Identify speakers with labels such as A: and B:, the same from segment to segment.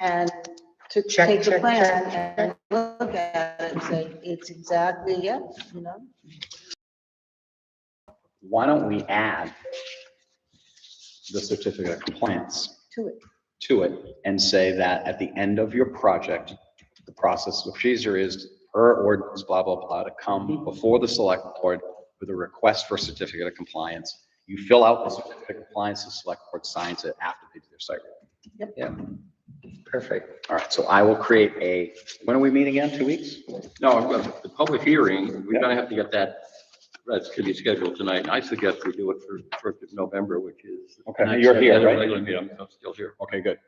A: and to
B: Check,
A: take the
B: check,
A: plan
B: check,
A: and look at it and say, it's exactly, yeah, you know?
C: Why don't we add the certificate of compliance
A: To it.
C: to it and say that at the end of your project, the process of procedure is per ordinance, blah, blah, blah, to come before the select board with a request for certificate of compliance. You fill out the certificate of compliance, the select board signs it after they do their site. review.
A: Yep.
C: Yeah,
B: Perfect.
C: all right, so I will create a, when are we meeting again? Two weeks?
D: No, I've got the public hearing, we're gonna have to get that, that's to be scheduled tonight. I suggest we do it for first of November, which is.
C: Okay, you're here,
D: Yeah,
C: right?
D: regular meeting, I'm still here. Um,
C: Okay, good.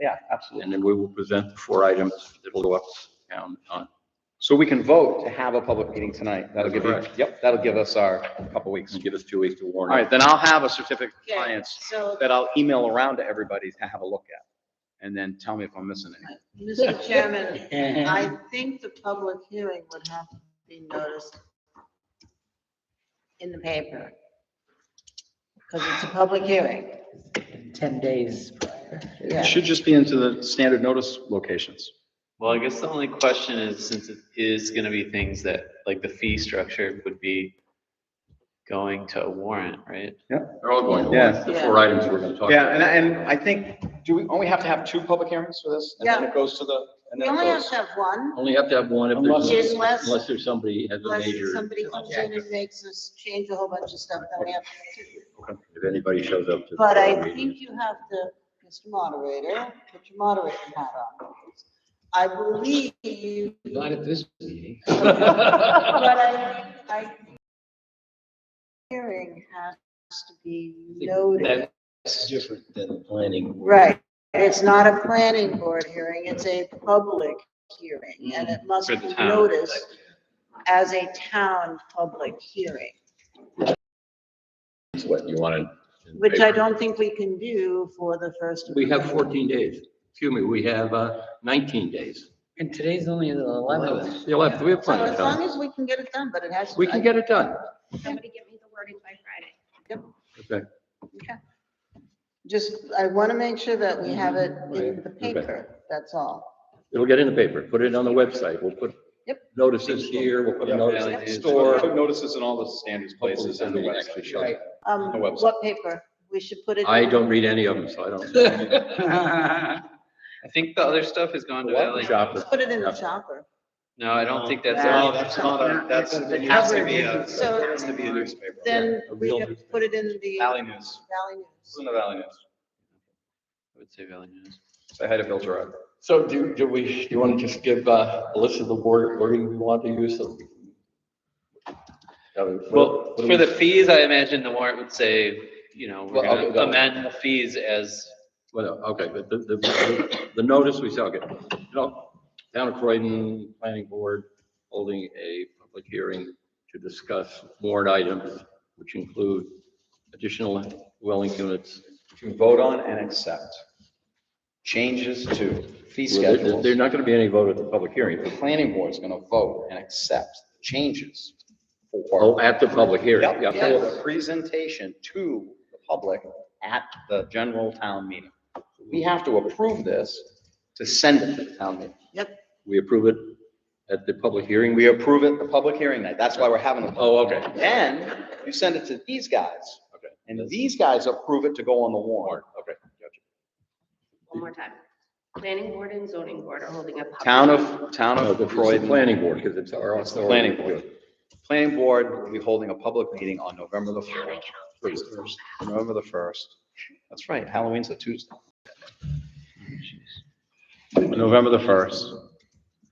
C: Yeah, absolutely.
D: And then we will present the four items that'll go up down on.
C: So we can vote to have a public meeting tonight. That'll give you,
D: Correct.
C: yep, that'll give us our couple weeks.
D: and Give us two weeks to
C: All
D: warn.
C: right, then I'll have a certificate of
A: Okay.
C: compliance
A: So,
C: that I'll email around to everybody to have a look at. And then tell me if I'm missing anything.
A: Mr. Chairman, I think the public hearing would have to be noticed in the paper. Because it's a public hearing,
B: Ten days prior.
C: It
A: yeah.
C: should just be into the standard notice locations.
E: Well, I guess the only question is, since it is gonna be things that, like the fee structure would be going to a warrant, right?
D: They're all going to
C: Yeah.
D: warn, the four items we're gonna talk.
C: Yeah,
D: about.
C: and, and I think, do we only have to have two public hearings for this? And then it goes to the, and
A: We
C: then it
A: only have
C: goes.
A: to have one,
D: Only have to have one if
A: Unless-
D: there's,
A: Unless-
D: unless there's somebody has a
A: unless
D: major.
A: somebody comes in and makes us change a whole bunch of stuff that we have. to do.
D: If anybody shows up to. the
A: But I
D: meeting.
A: think you have to, Mr. Moderator, put your moderator hat on. I believe you,
B: Not at this meeting.
A: but I, I hearing has to be noted.
B: That's different than planning.
A: Right, it's not a planning board hearing, it's a public hearing, and it must
E: For the
A: be
E: town.
A: noticed as a town public hearing,
D: It's What you wanted. in the
A: which I
D: paper.
A: don't think we can do for the first.
D: We have fourteen days. Excuse me, we have uh, nineteen days.
B: And today's only the eleventh.
D: The eleventh, we
A: So
D: have plenty of
A: as long
D: time.
A: as we can get it done, but it has. to-
D: We can get it done.
F: Somebody give me the wording by Friday.
D: Okay.
A: Just, I want to make sure that we have it in
D: Right,
A: the
D: okay.
A: paper, that's all.
D: It'll get in the paper. Put it on the website. We'll put
A: Yep.
D: notices here. We'll put a
C: Yeah.
D: notice
E: Yeah.
D: in the
C: Store,
D: store.
C: put notices in all the standards places and the
D: Hopefully
C: website.
D: somebody actually shows up.
A: Um,
C: The website.
A: what paper? We should put it.
D: I
A: in-
D: don't read any of them, so I don't.
E: I think the other stuff has gone to LA.
D: Shopper.
A: Put it in the chopper.
E: No, I don't think that's.
A: No,
C: that's not a, that's, it
E: has to be a-
A: So-
E: it has to be a newspaper.
A: Then
D: a
A: we
D: real
A: can put it in the
E: Valley News.
A: Valley
E: This
A: News.
E: the Valley News. I would say Valley News.
C: I had to filter out.
D: So do, do we, do you want to just give uh, a list of the word, wording we want to use? so- Uh, what-
E: Well,
D: what do
E: for
D: we-
E: the fees, I imagine the warrant would say, you know, we're
D: Well, I'll
E: gonna
D: go-
E: amend the fees as
D: Well, okay, but the, the, the notice we shall get, no, town of Croydon Planning Board holding a public hearing to discuss warrant items, which include additional dwelling units.
C: To vote on and accept changes to fee
D: There- there-
C: schedules.
D: There's not gonna be any vote at the public hearing.
C: The planning board's gonna vote and accept changes for.
D: Oh, at the public hearing,
C: Yep,
D: yeah.
C: for the presentation to the public at the general town meeting. We have to approve this to send it to the town meeting.
D: We approve it at the public hearing.
C: We approve it the public hearing night. That's why we're having it.
D: Oh, okay.
C: Then you send it to these guys.
D: Okay.
C: And these guys approve it to go on the warrant.
D: Okay.
F: One more time. Planning board and zoning board are holding a. public-
C: Town of, town
D: No,
C: of
D: but it's the
C: Croydon.
D: planning board, because it's our.
C: It's the planning board. Planning board will be holding a public meeting on November the first. November the first. That's right, Halloween's a Tuesday. November the first.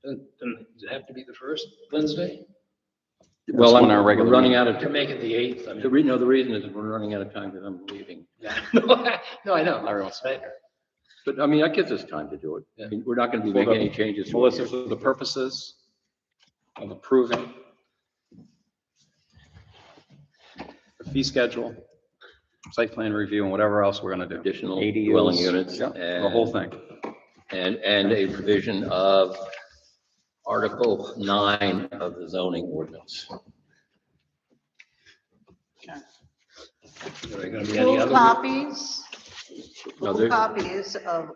G: Does it have to be the first Wednesday?
D: Well,
C: That's
D: I'm,
C: when our
D: we're
C: regular
D: running out of,
G: To
D: time.
G: make it the eighth, I
D: the
G: mean.
D: re, no, the reason is we're running out of time because I'm leaving.
G: No, I know.
C: Everyone's-
G: But-
D: But I mean, that gives us time to do it. I mean, we're not gonna be
C: For the-
D: making any changes. to it.
C: Melissa, for the purposes of approving the fee schedule, site plan review, and whatever else we're gonna do.
D: Additional
C: ADUs.
D: dwelling units
C: Yeah, The whole thing.
D: And, and a provision of Article nine of the zoning ordinance.
G: Are there gonna be any
A: Full
G: other?
A: copies,
D: No,
A: full
D: there-
A: uh, copies of